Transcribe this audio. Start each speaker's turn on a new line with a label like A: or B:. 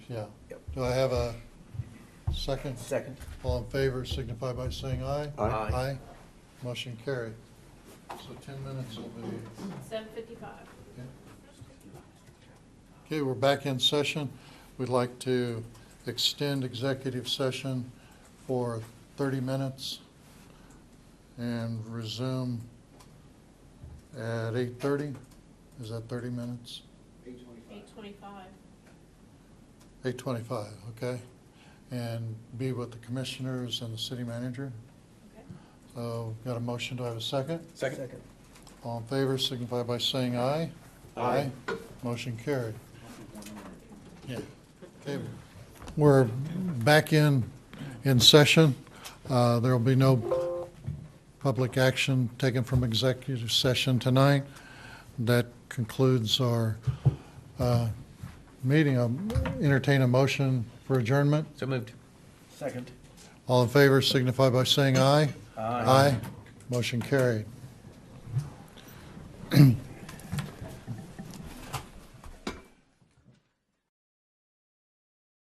A: Yeah.
B: Yep.
A: Do I have a second?
B: Second.
A: All in favor signify by saying aye.
C: Aye.
B: Aye.
A: Motion carried. So ten minutes will be,
D: Seven fifty-five.
A: yeah. Okay, we're back in session. We'd like to extend executive session for thirty minutes and resume at eight thirty. Is that thirty minutes?
D: Eight twenty-five.
A: Eight twenty-five, okay? And be with the commissioners and the city manager.
D: Okay.
A: So, got a motion, do I have a second?
C: Second?
A: All in favor signify by saying aye.
C: Aye.
A: Motion carried. Yeah. Okay. We're back in, in session. Uh, There will be no public action taken from executive session tonight. That concludes our uh, meeting. I'll Entertain a motion for adjournment.
C: So moved.
B: Second.
A: All in favor signify by saying aye. Aye. Motion carried.